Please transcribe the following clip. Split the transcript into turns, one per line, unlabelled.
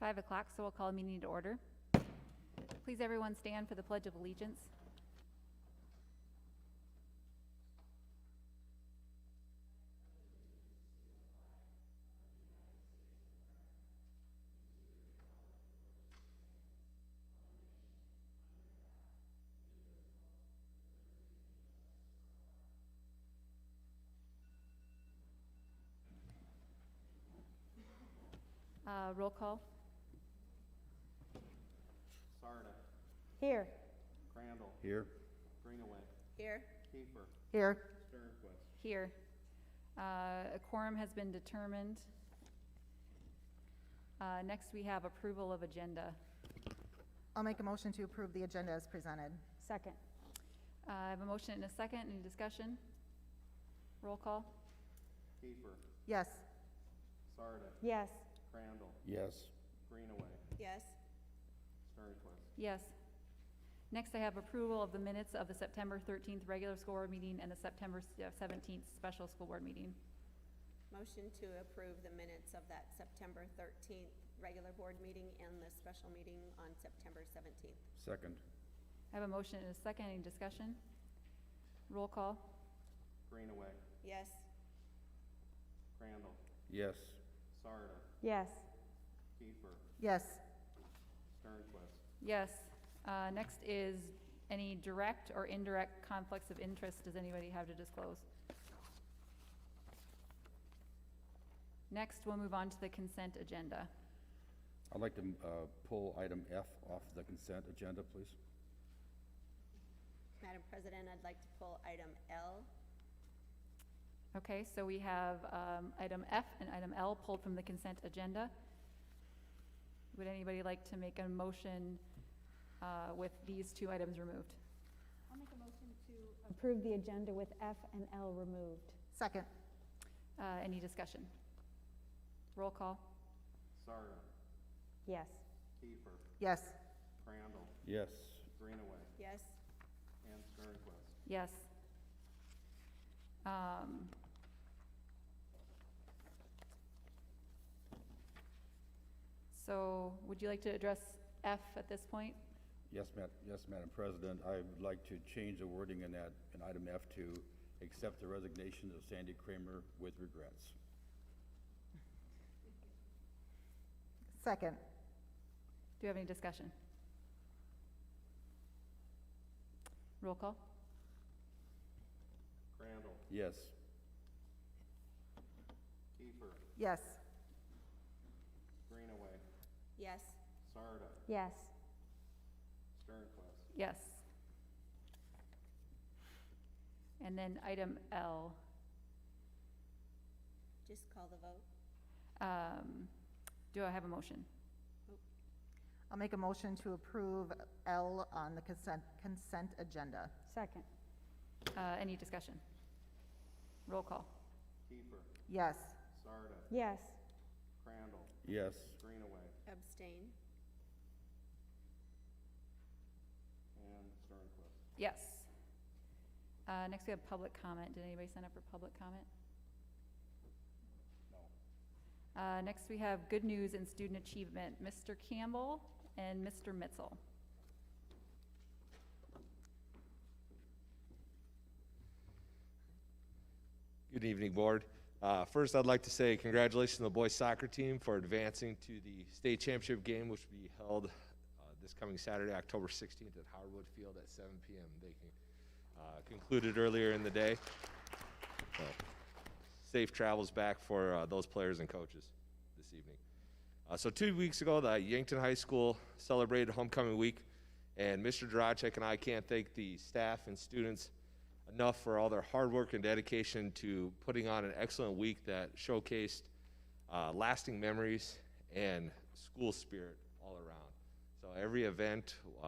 5 o'clock, so we'll call a meeting to order. Please everyone stand for the Pledge of Allegiance. Uh, Roll call.
Sarda,
Here.
Crandall,
Here.
Greenaway,
Here.
Kiefer,
Here.
Sternquist.
Here. Uh, A quorum has been determined. Uh, Next, we have approval of agenda.
I'll make a motion to approve the agenda as presented. Second.
Uh, I have a motion and a second. Any discussion? Roll call.
Kiefer,
Yes.
Sarda,
Yes.
Crandall,
Yes.
Greenaway,
Yes.
Sternquist.
Yes. Next, I have approval of the minutes of the September 13th regular school board meeting and the September s- uh, 17th special school board meeting.
Motion to approve the minutes of that September 13th regular board meeting and the special meeting on September 17th.
Second.
I have a motion and a second. Any discussion? Roll call.
Greenaway,
Yes,
Crandall,
Yes.
Sarda,
Yes.
Kiefer,
Yes.
Sternquist.
Yes. Uh, Next is any direct or indirect conflicts of interest does anybody have to disclose? Next, we'll move on to the consent agenda.
I'd like to uh, pull item F off the consent agenda, please.
Madam President, I'd like to pull item L.
Okay, so we have um, item F and item L pulled from the consent agenda. Would anybody like to make a motion uh, with these two items removed?
I'll make a motion to approve the agenda with F and L removed.
Second.
Uh, Any discussion? Roll call.
Sarda,
Yes.
Kiefer,
Yes.
Crandall,
Yes.
Greenaway,
Yes,
and Sternquist.
Yes. Um, So would you like to address F at this point?
Yes, Ma- yes, Madam President, I would like to change the wording in that, in item F to accept the resignation of Sandy Kramer with regrets.
Second.
Do you have any discussion? Roll call?
Crandall,
Yes.
Kiefer,
Yes.
Greenaway,
yes,
Sarda,
Yes.
Sternquist.
Yes. And then item L,
just call the vote.
um, do I have a motion?
I'll make a motion to approve L on the consent, consent agenda.
Second.
Uh, any discussion? Roll call?
Kiefer,
Yes.
Sarda,
Yes.
Crandall,
Yes.
Greenaway,
Abstain.
and Sternquist.
Yes. Uh, next we have public comment. Did anybody sign up for public comment? No. Uh, next we have good news and student achievement, Mr. Campbell and Mr. Mitzel.
Good evening, Board. Uh, First, I'd like to say congratulations to the boys soccer team for advancing to the state championship game, which will be held uh, this coming Saturday, October 16th at Howard Field at 7 PM. They can- uh, concluded earlier in the day. So, Safe travels back for uh, those players and coaches this evening. Uh, so two weeks ago, the Yankton High School celebrated Homecoming Week, and Mr. Duracek and I can't thank the staff and students enough for all their hard work and dedication to putting on an excellent week that showcased uh, lasting memories and school spirit all around. So every event,